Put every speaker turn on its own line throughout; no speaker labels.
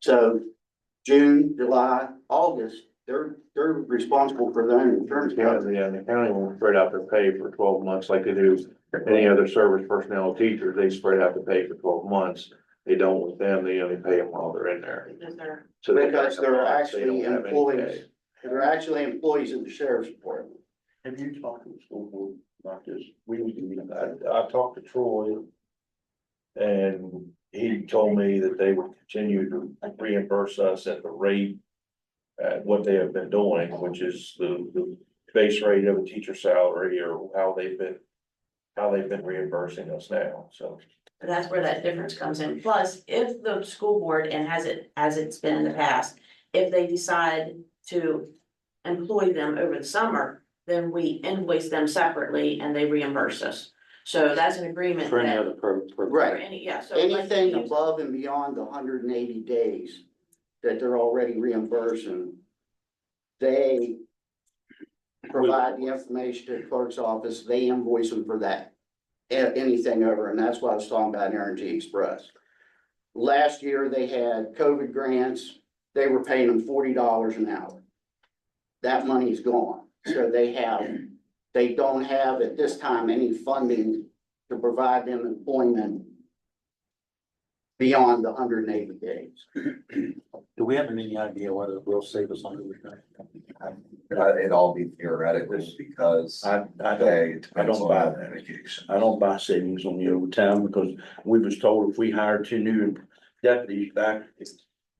So June, July, August, they're, they're responsible for their own insurance.
Yeah,
coverage.
yeah, and the county won't spread out their pay for twelve months like they do any other service personnel, teachers, they spread out the pay for twelve months. They don't with them, they only pay them while they're in there. So they-
Because they're actually
they don't have any
employees.
pay.
They're actually employees of the sheriff's department.
Have you talked to the school board about this? We need to meet
I,
that.
I talked to Troy. And he told me that they would continue to reimburse us at the rate. At what they have been doing, which is the, the base rate of a teacher salary or how they've been. How they've been reimbursing us now, so.
But that's where that difference comes in. Plus, if the school board, and has it, as it's been in the past, if they decide to employ them over the summer, then we invoice them separately and they reimburse us. So that's an agreement
For any
that,
other pro- pro-
for
Right.
any, yeah, so. like,
Anything
you-
above and beyond the hundred and eighty days that they're already reimbursing, they provide the information to the clerk's office, they invoice them for that. A- Anything over, and that's what I was talking about in Energy Express. Last year, they had COVID grants, they were paying them forty dollars an hour. That money's gone, so they have, they don't have at this time any funding to provide them employment beyond the hundred and eighty days.
Do we have any idea whether it will save us money? or not?
Uh, It'd all be theoretical because
I, I don't,
they, it depends
don't buy
on
that.
education.
I don't buy savings on the overtime because we was told if we hired two new deputies back,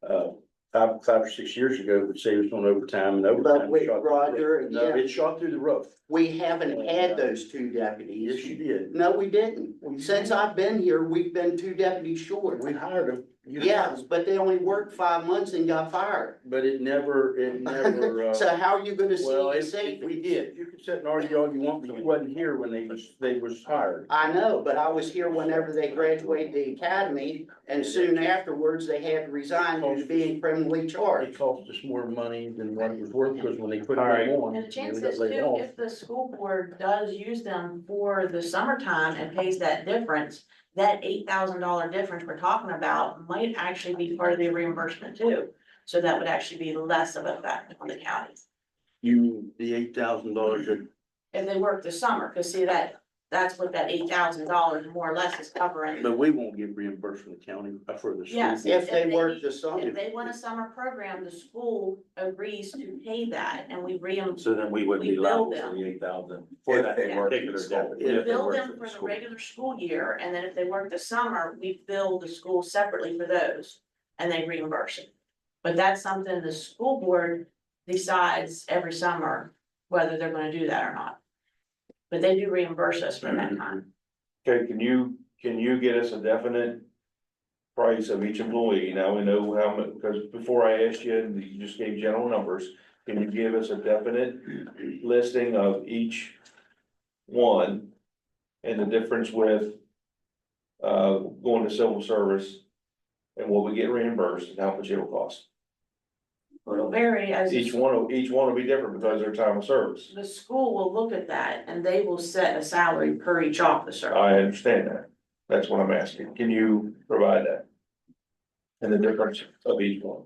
uh, five, five or six years ago, it would save us on overtime and overtime.
But wait,
shot-
Roger,
No,
yeah.
it shot through the roof.
We haven't had those two deputies.
Yes, you did.
No, we didn't. Since I've been here, we've been two deputies short.
We hired them. You-
Yes, but they only worked five months and got fired.
But it never, it never, uh.
So how are you gonna see
Well,
the
if, if
savings?
we did, you can sit and argue all you want, but you wasn't here when they was, they was hired.
I know, but I was here whenever they graduated the academy and soon afterwards they had to resign due to being criminally
It
charged.
cost us more money than what it was worth, because when they put them
Alright.
on.
And the
they
chances
got laid
too,
off.
if the school board does use them for the summertime and pays that difference, that eight thousand dollar difference we're talking about might actually be part of the reimbursement too. So that would actually be less of a fact on the counties
You, the eight thousand dollars that
if they work the summer, cause see that, that's what that eight thousand dollars more or less is covering.
But we won't get reimbursed from the county uh, for the. school.
Yes.
If they worked the summer,
If they want a summer program, the school agrees to pay that and we reimburse,
So then we would
We
be liable
bill
for
them.
the eight thousand for
If
that
they work in
particular
school.
deputy. if they
bill
work
them
the
for the
school.
regular school year, and then if they work the summer, we bill the school separately for those. And they reimburse it. But that's something the school board decides every summer whether they're gonna do that or not. But they do reimburse us for
Mm-hmm.
that time.
Okay, can you, can you get us a definite price of each employee? Now we know how much, because before I asked you, and you just gave general numbers. Can you give us a definite listing of each one and the difference with uh, going to civil service and what we get reimbursed and how much it'll cost?
It'll vary as. the
Each one, will- each one will be different because of their time of service.
The school will look at that and they will set a salary per each officer.
I understand that. That's what I'm asking. Can you provide that? And the difference of each one?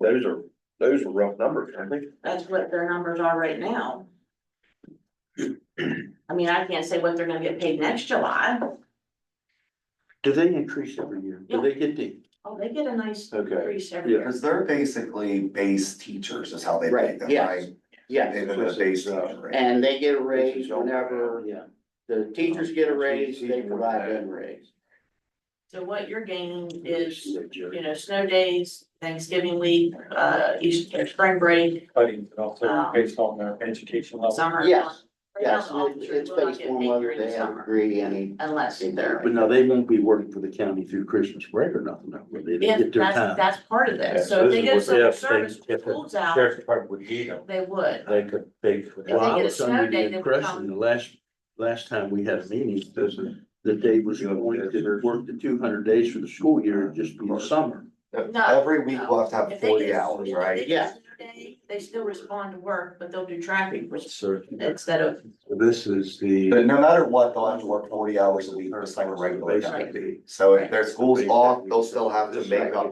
Those are, those are rough numbers, I think.
That's what their numbers are right now. I mean, I can't say what they're gonna get paid next July.
Do they increase every year? Do they get the?
Oh, they get a nice
Okay.
increase every year.
Because they're basically base teachers is how they
Right,
make them,
yes.
right?
yeah.
They're the base
This is, uh,
teacher. rate.
And they get a raise whenever
Yeah.
the teachers get a raise, they provide them a raise.
So what you're gaining is, you know, snow days, Thanksgiving week, uh, Easter, spring break,
Cutting, but also
Um,
based on their education
Oh,
level.
summer.
Yes,
Right now,
Yes,
the
it's
officers
it's
will not
based
get
on
paid
whether
during the
they have a
summer
degree, any
unless they're.
But now they won't be working for the county through Christmas break or nothing, though, will they? They
If
get their
that's,
time.
that's part of
Yeah,
this.
so
So
this
if they
is
get
what they
civil
have to
service,
take- if the
schools out,
Sheriff's Department would need them.
they would.
They could pay for
If
Well,
they
I
that.
get a
was
snow
under
day, they
the
would
impression,
come.
the last, last time we had a meeting, that they was going to work the two hundred days for the school year, just in the summer.
No,
Every week we'll have to have
um, If they
forty
get a-
hours,
if
right?
they get a snow day, They still respond to work, but they'll do traffic, which
So
instead of,
this is
But
the.
no matter what, they'll have to work forty hours a week, just like a regular
Basically.
guy. So if their school's off, they'll still have to make up